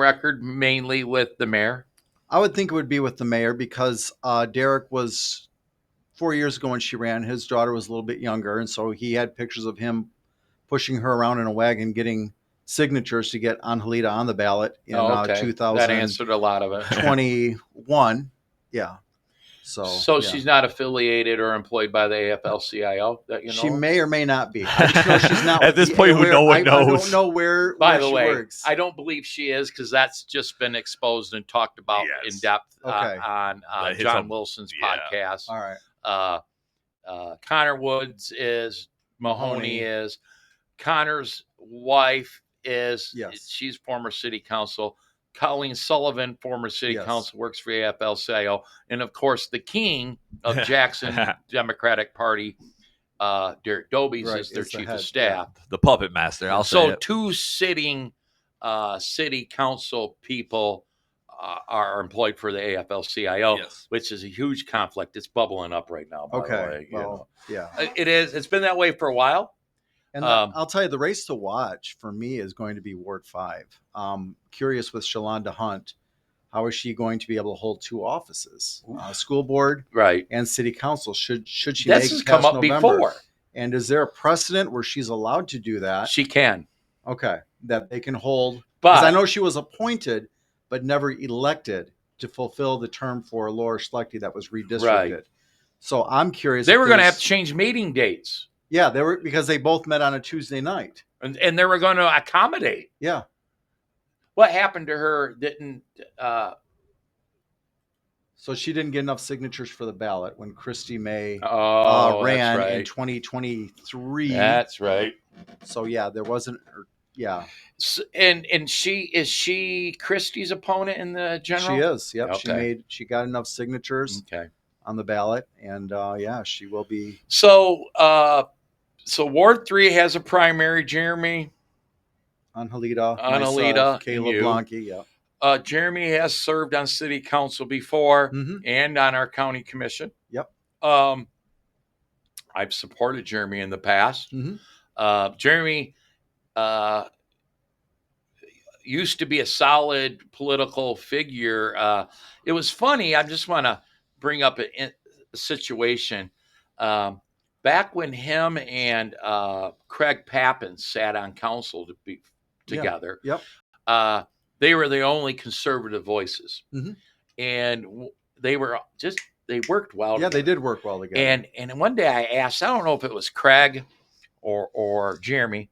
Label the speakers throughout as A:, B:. A: record mainly with the mayor?
B: I would think it would be with the mayor because uh, Derek was four years ago when she ran. His daughter was a little bit younger, and so he had pictures of him pushing her around in a wagon, getting signatures to get Angelita on the ballot in
A: Oh, okay.
B: uh,
A: That answered a lot of it.
B: 2021. yeah. So,
A: So
B: yeah.
A: she's not affiliated or employed by the AFL-CIO that you know.
B: she
A: of?
B: may or may not be. I just know she's not
C: At this point, who-
B: where-
C: no one
B: I- I
C: knows.
B: don't know where.
A: By
B: where
A: the
B: she
A: way,
B: works.
A: I don't believe she is because that's just been exposed and talked about
C: Yes.
A: in depth uh,
B: Okay.
A: on uh,
C: That hits
A: John
C: on-
A: Wilson's
C: yeah.
A: podcast.
B: all right.
A: Uh, uh, Connor Woods is Mahoney
B: Mahoney.
A: is Connor's wife is
B: Yes.
A: she's former city council. Colleen Sullivan, former city
B: Yes.
A: council, works for AFL-CIO, and of course the king of Jackson Democratic Party, uh, Derek Dobies
B: Right,
A: is their
B: is the
A: chief
B: head,
A: of
B: yeah.
A: staff.
C: the puppet master. I'll say
A: So
C: it.
A: two sitting uh, city council people uh, are employed for the AFL-CIO,
C: Yes.
A: which is a huge conflict. It's bubbling up right now. By The way,
B: Okay.
A: you know.
B: Well, yeah.
A: It- It is. It's been that way for a while.
B: And
A: Um,
B: I'll tell you, the race to watch for me is going to be Ward Five. Um, curious with Shalonda Hunt, how is she going to be able to hold two offices, uh, school board
A: Right.
B: and city council? Should should she
A: This
B: make
A: has
B: it
A: come
B: past
A: up
B: November?
A: before.
B: And is there a precedent where she's allowed to do that?
A: She can.
B: Okay, that they can hold
A: But
B: because I know she was appointed but never elected to fulfill the term for Laura Schlechte that was redistricted. So I'm curious.
A: they
B: if
A: were going to
B: there's-
A: have to change meeting dates,
B: Yeah, they were because they both met on a Tuesday night.
A: and, and they were going to accommodate.
B: Yeah.
A: What happened to her didn't uh,
B: So she didn't get enough signatures for the ballot when Christy May uh,
A: oh,
B: ran
A: that's
B: in
A: right.
B: 2023.
A: That's right.
B: so yeah, there wasn't. or- Yeah,
A: S- and and she is she Christie's opponent in the general.
B: she is. Yep,
A: Okay.
B: she
A: Mm.
B: made. She got enough signatures
A: Okay.
B: on the ballot, and uh, yeah, she will be.
A: So uh, so Ward three has a primary. Jeremy
B: Angelita,
A: Angelita
B: myself,
A: and
B: Caleb
A: you.
B: Blanke. Yeah.
A: uh, Jeremy has served on city council before
B: hmm
A: and on our county commission.
B: Yep.
A: Um, I've supported Jeremy in the past.
B: Mhm.
A: Uh, Jeremy uh, used to be a solid political figure. Uh, it was funny. I just want to bring up a, in- a situation. Um, back when him and uh, Craig Pappin sat on council to be
B: Yeah.
A: together,
B: Yep.
A: uh, they were the only conservative voices.
B: Mhm.
A: And w- they were just, they worked well.
B: Yeah,
A: together.
B: they did work well together.
A: And and one day I asked, I don't know if it was Craig or or Jeremy,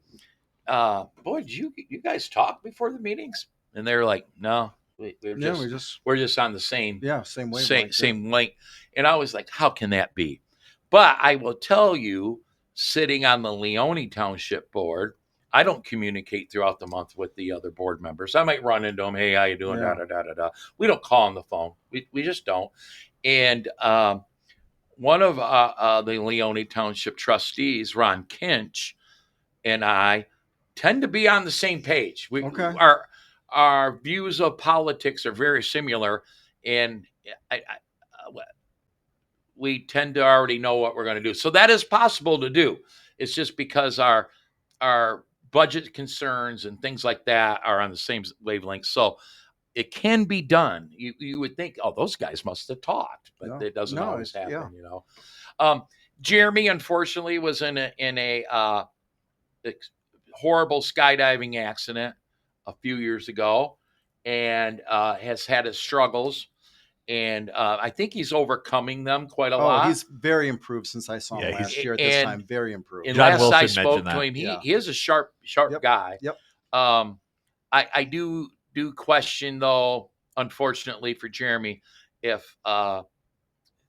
A: uh, boy, did you you guys talk before the meetings? And they were like, no, we, we're
B: yeah,
A: just
B: we just
A: we're just on the same
B: yeah same way.
A: same same link. And I was like, how can that be? But I will tell you, sitting on the Leone Township Board, I don't communicate throughout the month with the other board members. I might run into them, hey, how you doing? Da da
B: Yeah.
A: da da da. We don't call on the phone. We we just don't. And um, one of uh, uh, the Leone Township trustees, Ron Kinch, and I tend to be on the same page. We
B: Okay.
A: our our views of politics are very similar, and I, I, uh, we tend to already know what we're going to do. So that is possible to do. It's just because our our budget concerns and things like that are on the same wavelength. So it can be done. You you would think, oh, those guys must have talked, but
B: No.
A: it doesn't
B: No,
A: always
B: it's-
A: happen.
B: yeah.
A: You know, um, Jeremy unfortunately was in a in a uh, ex- horrible skydiving accident a few years ago, and uh, has had his struggles. And uh, I think he's overcoming them quite a
B: Oh,
A: lot.
B: he's very improved since I saw him
C: Yeah, he's-
B: last year at this
A: and-
B: time. Very improved.
A: And
C: John
A: last I
C: Wilson
A: spoke
C: mentioned
A: to
C: that.
A: him, he,
B: Yeah.
A: he is a sharp, sharp
B: Yep.
A: guy.
B: Yep.
A: Um, I, I do do question though, unfortunately for Jeremy, if uh,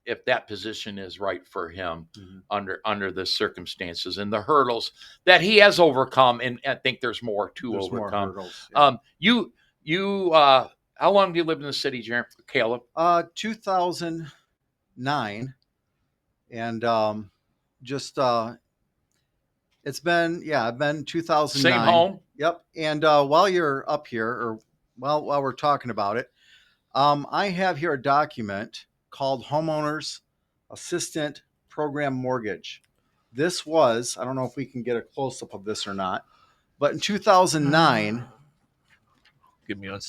A: if that position is right for him
B: Mhm.
A: under under the circumstances and the hurdles that he has overcome, and I think there's more to
B: There's more
A: overcome.
B: hurdles, yeah.
A: um, you you uh, how long do you live in the city, Jeremy? Caleb,
B: Uh, 2009, and um, just uh, it's been yeah, I've been 2009.
A: same home.
B: Yep. And uh, while you're up here, or while while we're talking about it, um, I have here a document called Homeowners Assistant Program Mortgage. This was I don't know if we can get a close up of this or not, but in 2009.
C: Give me one